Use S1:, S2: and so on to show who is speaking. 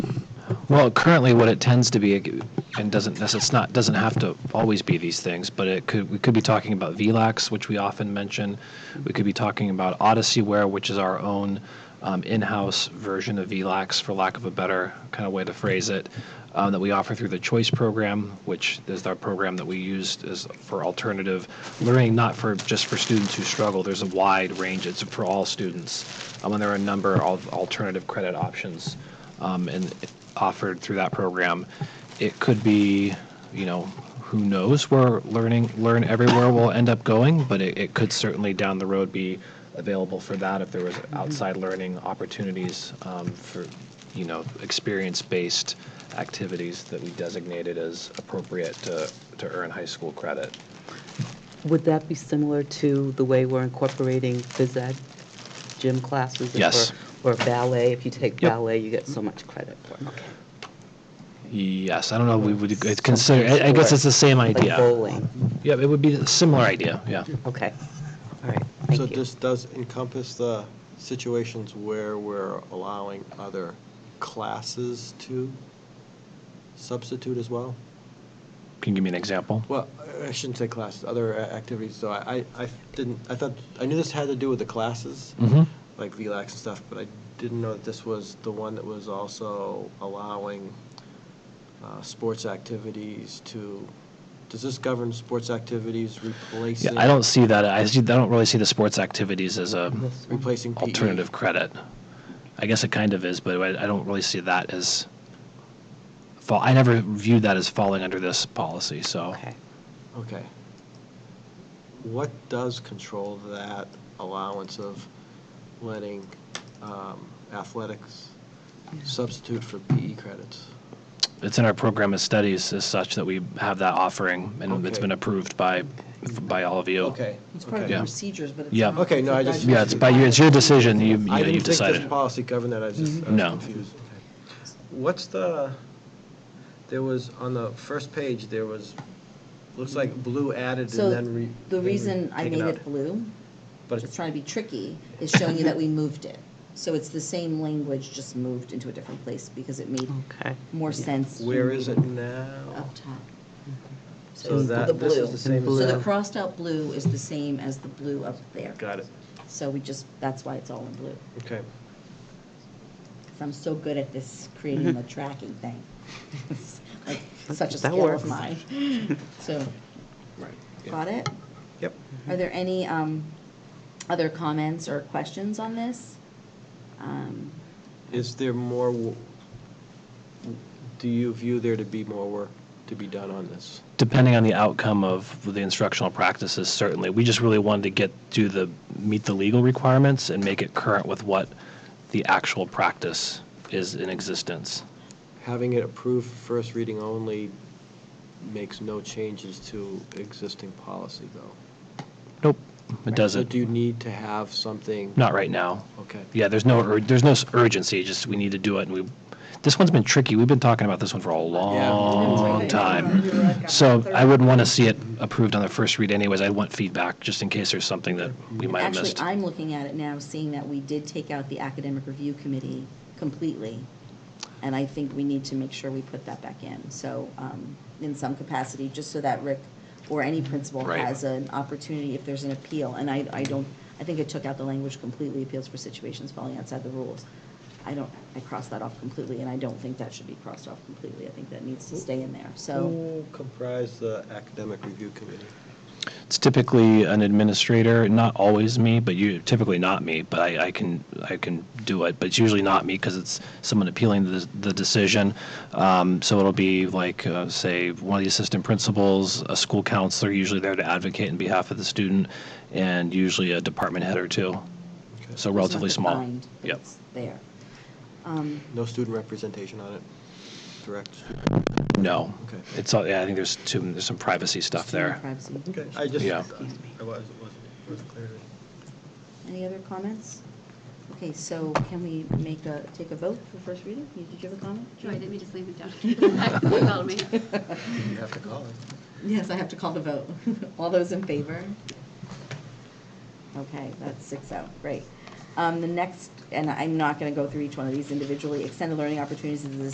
S1: Well, currently, what it tends to be, and doesn't necess- it's not doesn't have to always be these things, but it could we could be talking about VLAX, which we often mention. We could be talking about Odysseyware, which is our own um, in-house version of VLAX, for lack of a better kind of way to phrase it, um, that we offer through the Choice program, which is our program that we use as for alternative learning, not for just for students who struggle. There's a wide range. It's for all students, um, and there are a number of alternative credit options um, and offered through that program. It could be, you know, who knows where learning learn everywhere will end up going, but it, it could certainly down the road be available for that if there was outside learning opportunities um, for, you know, experience-based activities that we designated as appropriate to, to earn high school credit.
S2: Would that be similar to the way we're incorporating phys ed gym classes?
S1: Yes.
S2: Or or ballet, if you take
S1: Yep.
S2: ballet, you get so much credit for it.
S1: Yes, I don't know, we would consider, I- I guess it's the same
S2: Like
S1: idea.
S2: bowling,
S1: Yeah, it would be a similar idea, yeah.
S2: okay, all right,
S3: So
S2: thank you.
S3: this does encompass the situations where we're allowing other classes to substitute as well?
S1: Can you give me an example?
S3: Well, I- I shouldn't say classes, other a- activities, so I, I- I didn't, I thought, I knew this had to do with the classes,
S1: Mhm.
S3: like VLAX and stuff, but I didn't know that this was the one that was also allowing uh, sports activities to, does this govern sports activities
S1: Yeah,
S3: replacing?
S1: I don't see that, I see, I don't really see the sports activities as a
S2: This one.
S3: Replacing E? PE?
S1: alternative credit. I guess it kind of is, but I I don't really see that as, fall, I never viewed that as falling under this policy, so.
S2: Okay,
S3: Okay. What does control that allowance of letting um, athletics substitute for PE credits?
S1: It's in our program of studies as such that we have that offering, and it's
S3: Okay.
S1: been approved by, by all of you.
S3: Okay.
S4: It's part of
S3: okay.
S4: the
S1: Yeah.
S4: procedures, but it's
S1: Yeah.
S4: not.
S3: Okay, no, I just-
S1: Yeah, it's by your, it's your decision, you, you know,
S3: I
S1: you've
S3: didn't think this
S1: decided.
S3: policy governed that, I was
S4: Mm-hmm.
S3: just, I was
S1: No.
S3: confused. What's the, there was, on the first page, there was, looks like blue added
S4: So
S3: and then re.
S4: the
S3: then re-
S4: reason I
S3: taken
S4: made
S3: out.
S4: it blue,
S3: But
S4: just
S3: it's-
S4: trying to be tricky, is showing you that we moved it. So it's the same language, just moved into a different place because it made
S2: okay.
S4: more sense.
S3: where is it now?
S4: Up top.
S3: So
S4: So it's
S3: that-
S4: the
S3: this is
S4: blue.
S3: the same
S2: as
S4: So the
S2: that.
S4: crossed out blue is the same as the blue up there.
S3: Got it,
S4: So we just, that's why it's all in blue.
S3: okay.
S4: 'Cause I'm so good at this, creating the tracking thing. It's like Such a
S2: That
S4: skill of
S2: works.
S4: mine. So,
S3: Right.
S4: got it?
S3: Yep.
S4: Are there any um, other comments or questions on this? Um,
S3: Is there more, wo- do you view there to be more work to be done on this?
S1: Depending on the outcome of the instructional practices, certainly. We just really wanted to get, do the, meet the legal requirements and make it current with what the actual practice is in existence.
S3: Having it approved for first reading only makes no changes to existing policy, though.
S1: Nope, it
S3: So
S1: doesn't,
S3: do you need to have something?
S1: not right now.
S3: Okay.
S1: Yeah, there's no, ur- there's no s- urgency, just we need to do it, and we, this one's been tricky. We've been talking about this one for a long time. So I wouldn't want to see it approved on the first read anyways. I want feedback, just in case there's something that we might have
S4: Actually,
S1: missed.
S4: I'm looking at it now, seeing that we did take out the academic review committee completely. And I think we need to make sure we put that back in, so, um, in some capacity, just so that Rick or any principal
S1: Right.
S4: has an opportunity if there's an appeal. And I, I don't, I think it took out the language completely, appeals for situations falling outside the rules. I don't, I crossed that off completely, and I don't think that should be crossed off completely. I think that needs to stay in there, so.
S3: Who comprise the academic review committee?
S1: It's typically an administrator, not always me, but you, typically not me, but I, I can, I can do it, but it's usually not me because it's someone appealing the, the decision. Um, so it'll be like, uh, say, one of the assistant principals, a school counselor, usually there to advocate in behalf of the student, and usually a department head or two.
S3: Okay.
S1: So
S4: it's not
S1: relatively small.
S4: defined, but
S1: Yep.
S4: it's There. Um,
S3: No student representation on it? Direct? student-
S1: No.
S3: Okay.
S1: It's, all- yeah, I think there's two, there's some privacy stuff there.
S4: Privacy.
S3: Okay, I just,
S1: Yeah.
S3: I was, wasn't, wasn't clear. to me.
S4: Any other comments? Okay, so can we make a, take a vote for first reading? You- Did you have a comment?
S5: Joy, let me just leave it down. You called me.
S3: You have to call it.
S4: Yes, I have to call the vote. All those in favor? Okay, that's six oh, great. Um, The next, and I'm not going to go through each one of these individually, extended learning opportunities is the